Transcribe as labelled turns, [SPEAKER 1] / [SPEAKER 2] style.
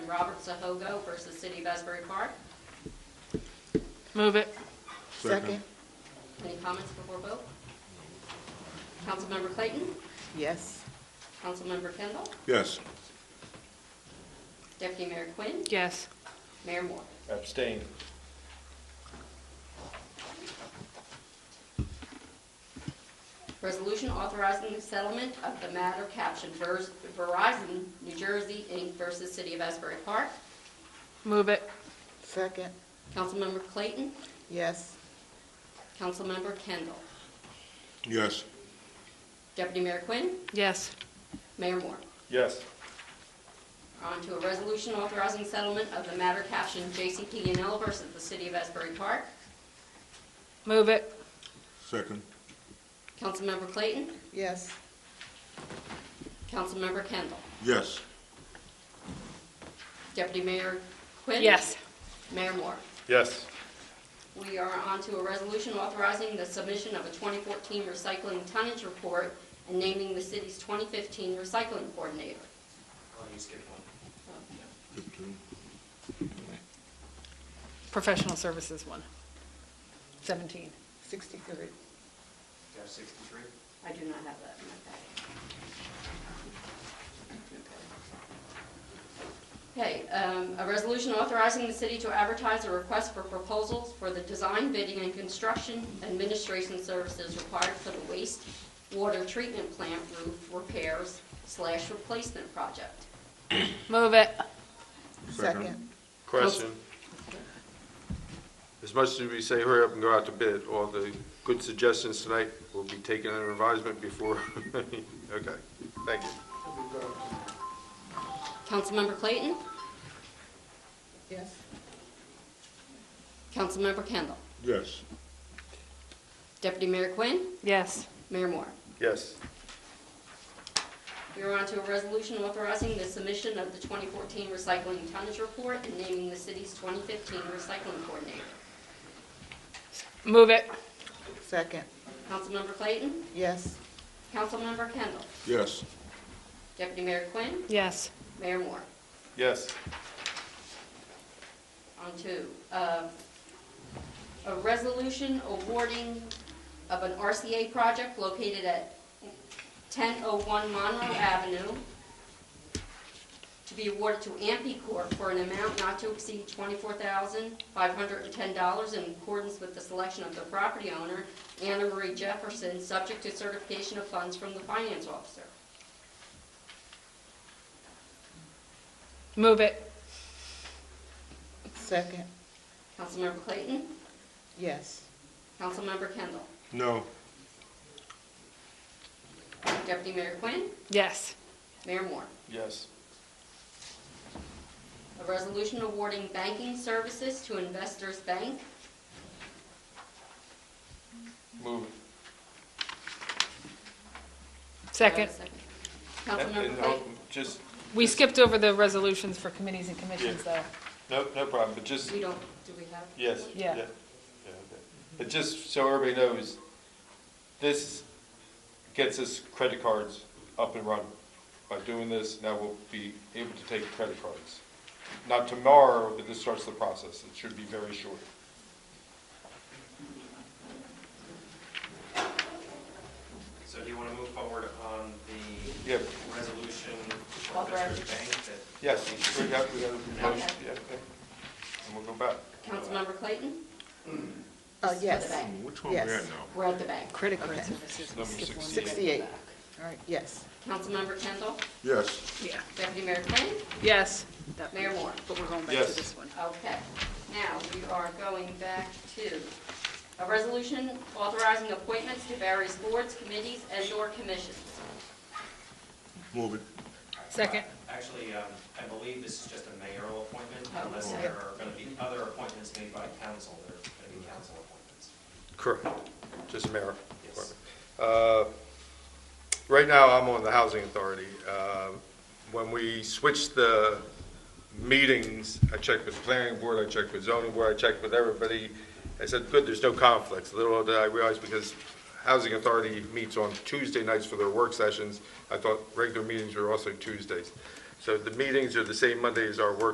[SPEAKER 1] Robert Zahogo versus City of Asbury Park.
[SPEAKER 2] Move it.
[SPEAKER 3] Second.
[SPEAKER 1] Any comments before vote? Councilmember Clayton?
[SPEAKER 3] Yes.
[SPEAKER 1] Councilmember Kendall?
[SPEAKER 4] Yes.
[SPEAKER 1] Deputy Mayor Quinn?
[SPEAKER 2] Yes.
[SPEAKER 1] Mayor Moore?
[SPEAKER 5] Abstain.
[SPEAKER 1] Resolution authorizing the settlement of the matter captioned Ver- Verizon, New Jersey, Inc. versus City of Asbury Park.
[SPEAKER 2] Move it.
[SPEAKER 3] Second.
[SPEAKER 1] Councilmember Clayton?
[SPEAKER 3] Yes.
[SPEAKER 1] Councilmember Kendall?
[SPEAKER 4] Yes.
[SPEAKER 1] Deputy Mayor Quinn?
[SPEAKER 2] Yes.
[SPEAKER 1] Mayor Moore?
[SPEAKER 5] Yes.
[SPEAKER 1] On to a resolution authorizing settlement of the matter captioned JCP&L versus the City of Asbury Park.
[SPEAKER 2] Move it.
[SPEAKER 4] Second.
[SPEAKER 1] Councilmember Clayton?
[SPEAKER 3] Yes.
[SPEAKER 1] Councilmember Kendall?
[SPEAKER 4] Yes.
[SPEAKER 1] Deputy Mayor Quinn?
[SPEAKER 2] Yes.
[SPEAKER 1] Mayor Moore?
[SPEAKER 5] Yes.
[SPEAKER 1] We are on to a resolution authorizing the submission of a 2014 recycling tonnage report and naming the city's 2015 recycling coordinator.
[SPEAKER 6] Oh, you skipped one.
[SPEAKER 4] Fifteen.
[SPEAKER 2] Professional services one. 17.
[SPEAKER 3] Sixty-three.
[SPEAKER 6] You have sixty-three?
[SPEAKER 1] I do not have that in my packet. Okay, um, a resolution authorizing the city to advertise a request for proposals for the design, bidding, and construction administration services required for the waste water treatment plant roof repairs slash replacement project.
[SPEAKER 2] Move it.
[SPEAKER 4] Second.
[SPEAKER 3] Second.
[SPEAKER 7] Question. As much as we say hurry up and go out to bid, all the good suggestions tonight will be taken under advisement before, okay, thank you.
[SPEAKER 1] Councilmember Clayton?
[SPEAKER 3] Yes.
[SPEAKER 1] Councilmember Kendall.
[SPEAKER 4] Yes.
[SPEAKER 1] Deputy Mayor Quinn.
[SPEAKER 2] Yes.
[SPEAKER 1] Mayor Moore.
[SPEAKER 7] Yes,
[SPEAKER 1] We are on to a resolution authorizing the submission of the 2014 recycling tonnage report and naming the city's 2015 recycling coordinator.
[SPEAKER 2] Move it.
[SPEAKER 3] Second.
[SPEAKER 1] Councilmember Clayton.
[SPEAKER 3] Yes.
[SPEAKER 1] Councilmember Kendall.
[SPEAKER 4] Yes.
[SPEAKER 1] Deputy Mayor Quinn.
[SPEAKER 2] Yes.
[SPEAKER 1] Mayor Moore.
[SPEAKER 7] yes,
[SPEAKER 1] On to uh, a resolution awarding of an RCA project located at 1001 Monroe Avenue to be awarded to Ampey Corp. for an amount not to exceed $24,510 in accordance with the selection of the property owner, Anna Marie Jefferson, subject to certification of funds from the finance officer.
[SPEAKER 2] Move it.
[SPEAKER 3] Second.
[SPEAKER 1] Councilmember Clayton?
[SPEAKER 3] Yes.
[SPEAKER 1] Councilmember Kendall?
[SPEAKER 4] No.
[SPEAKER 1] Deputy Mayor Quinn?
[SPEAKER 2] Yes.
[SPEAKER 1] Mayor Moore?
[SPEAKER 5] Yes.
[SPEAKER 1] A resolution awarding banking services to Investors Bank.
[SPEAKER 5] Move it.
[SPEAKER 2] Second.
[SPEAKER 1] Councilmember
[SPEAKER 5] And- and, uh,
[SPEAKER 1] Clayton.
[SPEAKER 5] Just,
[SPEAKER 2] We skipped over the resolutions for committees and commissions, though.
[SPEAKER 5] no, no problem, but just,
[SPEAKER 1] We don't, do we have?
[SPEAKER 5] yes.
[SPEAKER 2] Yeah.
[SPEAKER 5] Yeah, okay. But just so everybody knows, this gets us credit cards up and running. By doing this, now we'll be able to take credit cards. Not tomorrow, but this starts the process. It should be very short.
[SPEAKER 6] So do you want to move forward on the
[SPEAKER 5] Yeah,
[SPEAKER 6] resolution for
[SPEAKER 1] Authorizing.
[SPEAKER 6] Investors Bank that?
[SPEAKER 5] yes, we got, we got a motion,
[SPEAKER 1] Okay.
[SPEAKER 5] yeah, okay. And we'll go back.
[SPEAKER 1] Councilmember Clayton?
[SPEAKER 3] Oh,
[SPEAKER 1] This is for the
[SPEAKER 3] yes.
[SPEAKER 1] bank.
[SPEAKER 4] Which one we at
[SPEAKER 3] Yes.
[SPEAKER 4] now?
[SPEAKER 1] We're at the bank.
[SPEAKER 2] Credit card
[SPEAKER 3] Okay.
[SPEAKER 2] services. we
[SPEAKER 5] Number
[SPEAKER 2] skipped one.
[SPEAKER 5] 68.
[SPEAKER 3] Sixty-eight. All right, yes.
[SPEAKER 1] Councilmember Kendall,
[SPEAKER 4] Yes.
[SPEAKER 2] Yeah.
[SPEAKER 1] Deputy Mayor Quinn,
[SPEAKER 2] Yes. That-
[SPEAKER 1] Mayor Moore.
[SPEAKER 2] But we're going back to
[SPEAKER 5] Yes.
[SPEAKER 2] this one.
[SPEAKER 1] Okay, now we are going back to a resolution authorizing appointments to various boards, committees, and/or commissions.
[SPEAKER 4] Move it.
[SPEAKER 2] Second.
[SPEAKER 6] Actually, um, I believe this is just a mayoral appointment
[SPEAKER 1] Oh,
[SPEAKER 6] unless
[SPEAKER 1] okay.
[SPEAKER 6] there are going to be other appointments made by council. There are going to be council appointments.
[SPEAKER 7] correct, just mayor.
[SPEAKER 6] Yes.
[SPEAKER 7] Uh, Right now, I'm on the Housing Authority. Uh, When we switched the meetings, I checked with the planning board, I checked with zoning board, I checked with everybody. I said, good, there's no conflicts. Little did I realize, because Housing Authority meets on Tuesday nights for their work sessions, I thought regular meetings were also Tuesdays. So the meetings are the same Monday as our work